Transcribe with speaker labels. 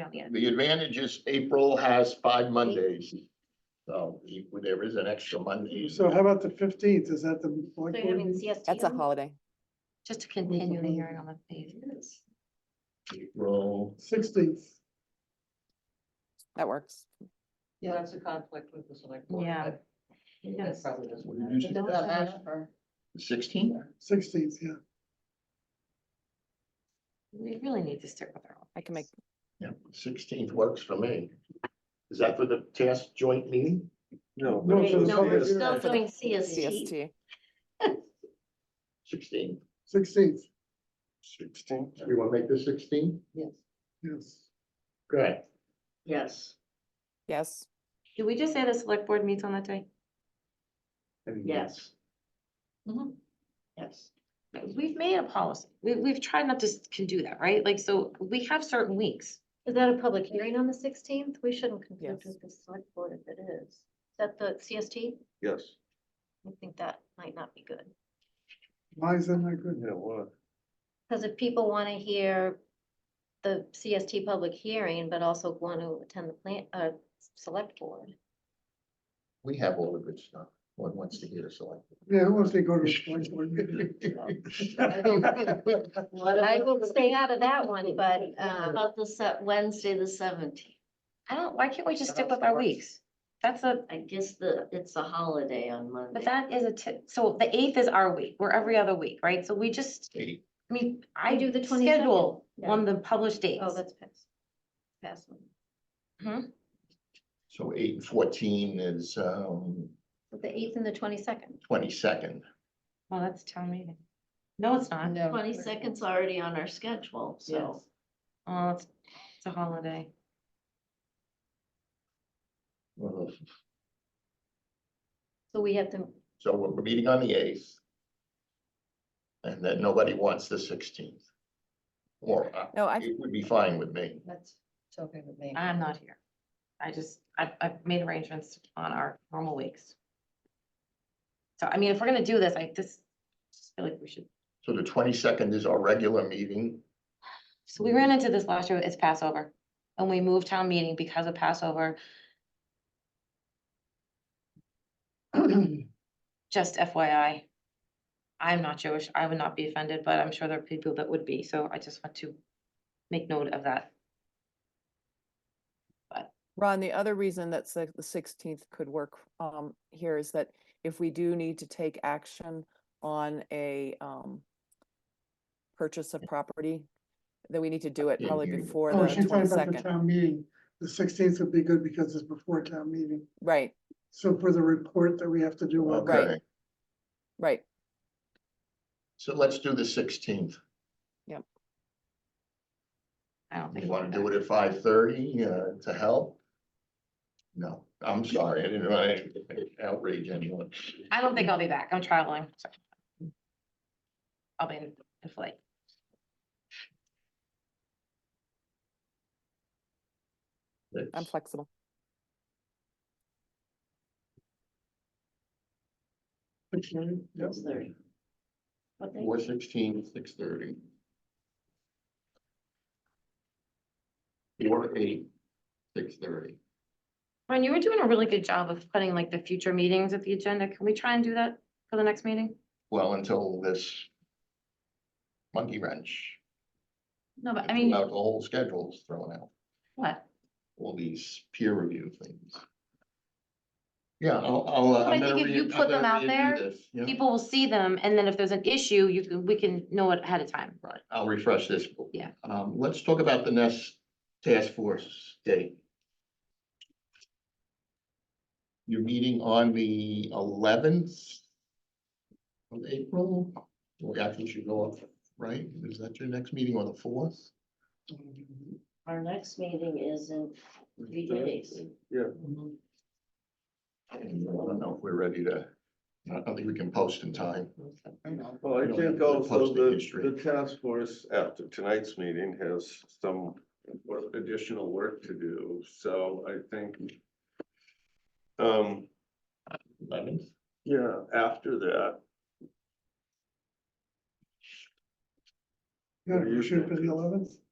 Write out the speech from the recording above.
Speaker 1: on the end.
Speaker 2: The advantage is April has five Mondays. So you- there is an extra Monday.
Speaker 3: So how about the fifteenth? Is that the?
Speaker 1: So
Speaker 3: select
Speaker 1: you're having
Speaker 3: board?
Speaker 1: the CST.
Speaker 4: That's a
Speaker 1: on-
Speaker 4: holiday.
Speaker 1: Just to continue the hearing on the pages.
Speaker 2: April,
Speaker 3: Sixteenth,
Speaker 4: That works.
Speaker 5: Yeah, that's a conflict with the select board.
Speaker 1: Yeah.
Speaker 5: but That probably doesn't.
Speaker 2: What did
Speaker 5: matter.
Speaker 2: you say?
Speaker 5: Does that matter? Or-
Speaker 2: sixteen?
Speaker 3: sixteenth, yeah.
Speaker 1: We really need to stick with our. own.
Speaker 4: I can make,
Speaker 2: Yeah, sixteenth works for me. Is that for the task joint meeting?
Speaker 3: No,
Speaker 6: No. but
Speaker 3: so
Speaker 6: it's
Speaker 3: no,
Speaker 6: not
Speaker 3: it's
Speaker 6: here.
Speaker 3: not-
Speaker 1: Still doing CST.
Speaker 4: CST.
Speaker 2: Sixteen.
Speaker 3: Sixteenth,
Speaker 6: Sixteen.
Speaker 2: Everyone make the sixteen?
Speaker 5: Yes.
Speaker 3: yes.
Speaker 2: Good.
Speaker 5: Yes.
Speaker 4: Yes,
Speaker 1: Did we just say the select board meets on that day?
Speaker 5: Yes.
Speaker 7: Mm-hmm.
Speaker 1: Mhm.
Speaker 5: Yes.
Speaker 1: We've made a policy. We, we've tried not to s- can do that, right? Like, so we have certain weeks.
Speaker 7: Is that a public hearing on the sixteenth? We shouldn't
Speaker 4: Yes.
Speaker 7: conflict with the select board if it is. Is that the CST?
Speaker 6: Yes,
Speaker 7: I think that might not be good.
Speaker 3: Why is that not good?
Speaker 6: yeah, what?
Speaker 7: Because if people want to hear the CST public hearing, but also want to attend the plant, uh, select board.
Speaker 2: We have all the good stuff. One wants to hear us all.
Speaker 3: Yeah, who wants to go to the select board meeting?
Speaker 7: I will stay out of that one, but, um,
Speaker 5: About the set Wednesday, the seventeenth.
Speaker 1: I don't, why can't we just stick with our weeks? That's a,
Speaker 5: I guess the, it's a holiday on Monday.
Speaker 1: but that is a, ti- so the eighth is our week. We're every other week, right? So we just,
Speaker 2: Eight.
Speaker 1: I mean, I do
Speaker 7: do the
Speaker 1: the
Speaker 7: 22nd?
Speaker 1: schedule
Speaker 7: Yeah.
Speaker 1: on the published dates.
Speaker 7: oh, that's past. Past one.
Speaker 2: So eight and fourteen is um
Speaker 7: But The eighth and the twenty-second.
Speaker 2: twenty-second.
Speaker 1: Well, that's town meeting. No, it's not.
Speaker 5: No.
Speaker 7: Twenty-second's already on our schedule,
Speaker 5: so-
Speaker 1: Oh, it's, it's a holiday.
Speaker 2: Uh,
Speaker 7: So we have to,
Speaker 2: So we're meeting on the eighth. And then nobody wants the sixteenth. Or uh,
Speaker 4: no, I,
Speaker 2: it would be fine with me.
Speaker 5: That's it's okay with me.
Speaker 1: I'm not here. I just, I've, I've made arrangements on our normal weeks. So I mean, if we're gonna do this, I just, just feel like we should.
Speaker 2: So the twenty-second is our regular meeting.
Speaker 1: So we ran into this last year, it's Passover, and we moved town meeting because of Passover. Just FYI. I'm not Jewish, I would not be offended, but I'm sure there are people that would be, so I just want to make note of that.
Speaker 4: Ron, the other reason that the sixteenth could work um here is that if we do need to take action on a um purchase of property, then we need to do it
Speaker 2: Yeah,
Speaker 4: probably
Speaker 2: you-
Speaker 4: before
Speaker 3: Oh,
Speaker 4: the
Speaker 3: she's talking about the
Speaker 4: twenty-second,
Speaker 3: town meeting. The sixteenth would be good because it's before town meeting.
Speaker 4: right,
Speaker 3: So for the report that we have to do on.
Speaker 4: Right.
Speaker 2: Okay,
Speaker 4: right.
Speaker 2: so let's do the sixteenth.
Speaker 1: I don't think.
Speaker 2: You want to do it at five thirty uh to help? No, I'm sorry, I didn't want to outrage anyone.
Speaker 1: I don't think I'll be back, I'm traveling. so. I'll be in in flight.
Speaker 4: I'm flexible.
Speaker 3: Yep.
Speaker 5: It's thirty.
Speaker 2: Four sixteen, six thirty. Four eight, six thirty.
Speaker 1: Ron, you were doing a really good job of putting like the future meetings at the agenda. Can we try and do that for the next meeting?
Speaker 2: Well, until this monkey wrench.
Speaker 1: No, but I
Speaker 2: It's
Speaker 1: mean,
Speaker 2: About the whole schedule's thrown out,
Speaker 1: what?
Speaker 2: all these peer review things. Yeah, I'll, I'll. uh,
Speaker 1: But I
Speaker 2: I'm gonna
Speaker 1: think if you
Speaker 2: re- I'm
Speaker 1: put them
Speaker 2: gonna
Speaker 1: out
Speaker 2: redo
Speaker 1: there,
Speaker 2: this, yeah.
Speaker 1: People will see them and then if there's an issue, you can, we can know it ahead of time.
Speaker 2: Right, I'll refresh this.
Speaker 1: Yeah.
Speaker 2: Um, let's talk about the next task force day. You're meeting on the eleventh of April, we actually should go up, right? Is that your next meeting on the fourth?
Speaker 5: Our next meeting is in three days.
Speaker 6: Yeah.
Speaker 2: I don't know if we're ready to, I don't think we can post in time.
Speaker 6: Well,
Speaker 2: We
Speaker 6: I
Speaker 2: don't have
Speaker 6: think
Speaker 2: the
Speaker 6: also
Speaker 2: posting
Speaker 6: the,
Speaker 2: history.
Speaker 6: the task force after tonight's meeting has some wor- additional work to do, so I think. Um,
Speaker 2: Eleventh,
Speaker 6: yeah, after that,
Speaker 3: Yeah, we should for the eleventh.